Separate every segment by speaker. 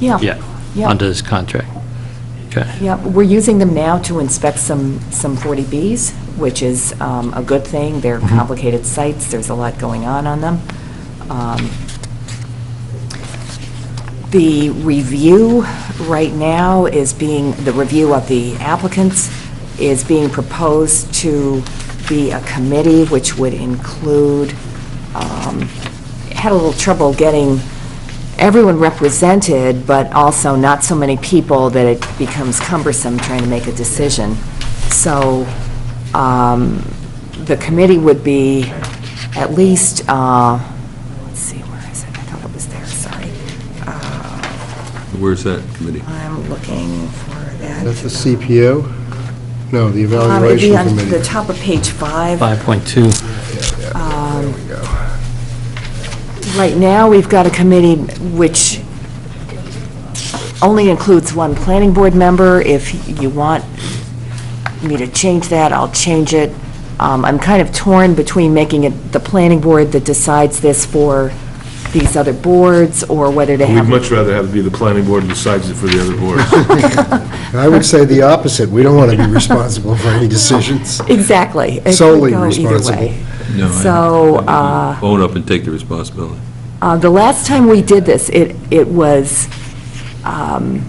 Speaker 1: Yeah.
Speaker 2: Yeah,
Speaker 1: Yeah.
Speaker 2: under this contract. Okay.
Speaker 1: Yeah, we're using them now to inspect some, some 40Bs, which is um, a good thing. They're
Speaker 2: Mhm.
Speaker 1: complicated sites, there's a lot going on on them. Um, The review right now is being, the review of the applicants is being proposed to be a committee, which would include, um, had a little trouble getting everyone represented, but also not so many people that it becomes cumbersome trying to make a decision. So um, the committee would be at least, uh, let's see, where is it? I thought it was there, sorry. Uh,
Speaker 3: Where's that committee?
Speaker 1: I'm looking for that.
Speaker 4: That's the CPO? No, the
Speaker 1: Um, It'd be
Speaker 4: evaluation
Speaker 1: on the
Speaker 4: committee.
Speaker 1: top of page five.
Speaker 2: 5.2,
Speaker 4: There we go.
Speaker 1: Right now, we've got a committee which only includes one planning board member. If you want me to change that, I'll change it. Um, I'm kind of torn between making it the planning board that decides this for these other boards, or whether to
Speaker 5: We'd
Speaker 1: have...
Speaker 5: much rather have it be the planning board decides it for the other boards.
Speaker 4: And I would say the opposite. We don't want to be responsible for any decisions.
Speaker 1: Exactly. It could
Speaker 4: Solely
Speaker 1: go either
Speaker 4: responsible.
Speaker 1: way.
Speaker 3: No, I-
Speaker 1: So,
Speaker 3: I would Own up and take the responsibility.
Speaker 1: Uh, The last time we did this, it, it was, um,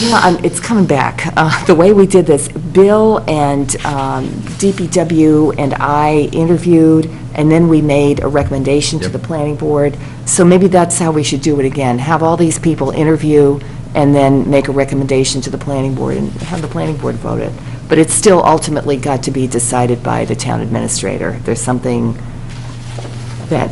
Speaker 1: you know, I'm- it's coming back. Uh, The way we did this, Bill and um, DPW and I interviewed, and then we made a recommendation to
Speaker 3: Yep.
Speaker 1: the planning board. So maybe that's how we should do it again. Have all these people interview and then make a recommendation to the planning board and have the planning board vote it. But it's still ultimately got to be decided by the town administrator. There's something that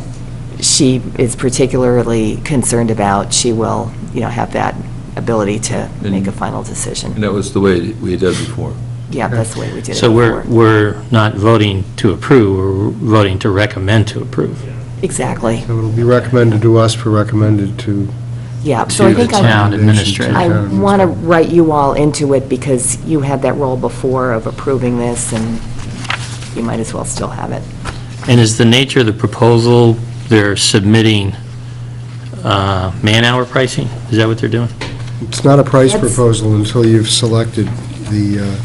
Speaker 1: she is particularly concerned about, she will, you know, have that ability to make a final
Speaker 3: And
Speaker 1: decision.
Speaker 3: that was the way we had done before.
Speaker 1: Yeah, that's the way we did it
Speaker 2: so we're,
Speaker 1: before.
Speaker 2: we're not voting to approve, we're voting to recommend to approve.
Speaker 1: Exactly,
Speaker 4: So it'll be recommended to us for recommended to...
Speaker 1: yeah. So I
Speaker 2: To the
Speaker 1: think I-
Speaker 2: town administrator.
Speaker 4: administration.
Speaker 1: I
Speaker 4: town
Speaker 1: want to
Speaker 4: administrator.
Speaker 1: write you all into it because you had that role before of approving this, and you might as well still have it.
Speaker 2: And is the nature of the proposal, they're submitting uh, man-hour pricing? Is that what they're doing?
Speaker 4: It's not a price
Speaker 1: That's-
Speaker 4: proposal until you've selected the uh,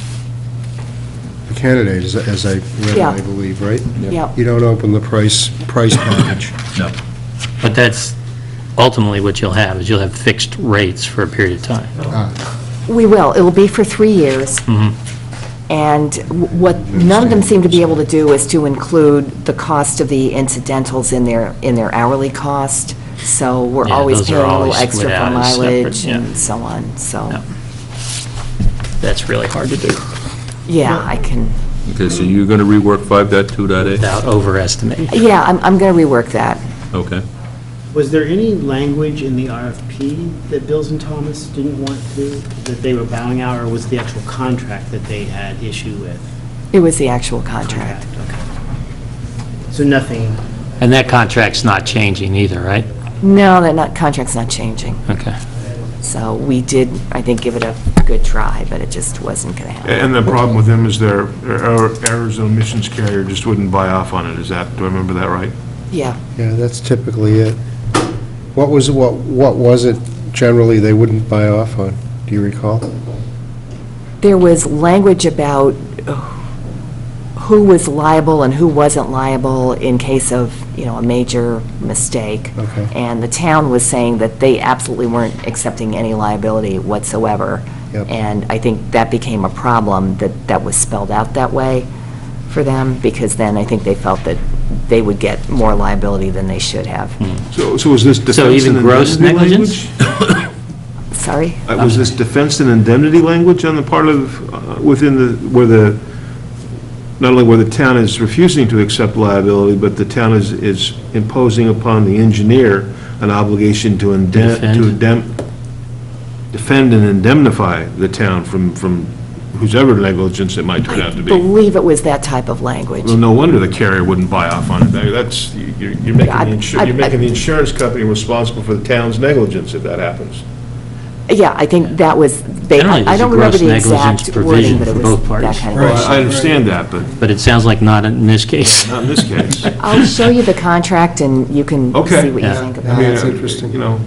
Speaker 4: the candidate, as- as I read,
Speaker 1: Yeah.
Speaker 4: I believe, right?
Speaker 1: Yeah,
Speaker 4: You don't open the price, price package.
Speaker 3: No.
Speaker 2: But that's ultimately what you'll have, is you'll have fixed rates for a period of time.
Speaker 4: Ah.
Speaker 1: we will. It'll be for three years.
Speaker 2: Mhm.
Speaker 1: And w- what, none of them seem to be able to do is to include the cost of the incidentals in their, in their hourly cost, so we're
Speaker 2: Yeah,
Speaker 1: always
Speaker 2: those are
Speaker 1: paying a little
Speaker 2: always
Speaker 1: extra
Speaker 2: split
Speaker 1: for
Speaker 2: out as separate,
Speaker 1: mileage
Speaker 2: yeah.
Speaker 1: and so on,
Speaker 2: Yeah.
Speaker 1: so,
Speaker 2: That's really hard to do
Speaker 1: yeah, I can,
Speaker 3: Okay, so you're going to rework 5.2.8?
Speaker 2: without overestimating.
Speaker 1: yeah, I'm, I'm gonna rework that.
Speaker 3: Okay.
Speaker 6: Was there any language in the RFP that Bills and Thomas didn't want to, that they were bowing out, or was the actual contract that they had issue with?
Speaker 1: It was the actual contract.
Speaker 6: Okay. So nothing,
Speaker 2: And that contract's not changing either, right?
Speaker 1: No, that not, contract's not changing,
Speaker 2: Okay.
Speaker 1: so we did, I think, give it a good try, but it just wasn't gonna happen.
Speaker 5: And the problem with them is their their errors and omissions carrier just wouldn't buy off on it, is that, do I remember that right?
Speaker 1: Yeah,
Speaker 4: Yeah, that's typically it. What was, what, what was it generally they wouldn't buy off on? Do you recall?
Speaker 1: there was language about uh, who was liable and who wasn't liable in case of, you know, a major mistake.
Speaker 4: Okay.
Speaker 1: And the town was saying that they absolutely weren't accepting any liability whatsoever.
Speaker 4: Yep.
Speaker 1: And I think that became a problem, that that was spelled out that way for them, because then I think they felt that they would get more liability than they should have.
Speaker 4: Hmm.
Speaker 5: So, so was this
Speaker 2: So
Speaker 5: defense
Speaker 2: even
Speaker 5: and
Speaker 2: gross
Speaker 5: indemnity
Speaker 2: negligence?
Speaker 5: language?
Speaker 1: Sorry?
Speaker 5: Uh, Was this defense and indemnity language on the part of, uh, within the, where the, not only where the town is refusing to accept liability, but the town is, is imposing upon the engineer an obligation to indemn, to
Speaker 2: Defend.
Speaker 5: indemn, defend and indemnify the town from, from whosever negligence it might turn out to be.
Speaker 1: Believe it was that type of language.
Speaker 5: Well, no wonder the carrier wouldn't buy off on it. That- That's, you're you're making,
Speaker 1: Yeah, I-
Speaker 5: the
Speaker 1: I-
Speaker 5: insu- you're making the insurance company responsible for the town's negligence if that happens.
Speaker 1: Yeah, I think that was, they-
Speaker 2: Generally,
Speaker 1: I I
Speaker 2: there's a
Speaker 1: don't remember
Speaker 2: gross
Speaker 1: the
Speaker 2: negligence
Speaker 1: exact wording,
Speaker 2: provision
Speaker 1: but it
Speaker 2: for
Speaker 1: was
Speaker 2: both
Speaker 1: that
Speaker 2: parties.
Speaker 1: kind of.
Speaker 5: Well, I understand that, but
Speaker 2: But it sounds like not in this case.
Speaker 5: not in this case.
Speaker 1: I'll show you the contract, and you can
Speaker 5: Okay.
Speaker 1: see what you
Speaker 2: Yeah.
Speaker 1: think about it.
Speaker 4: Yeah, that's
Speaker 5: Yeah,
Speaker 4: interesting.
Speaker 5: uh, You know,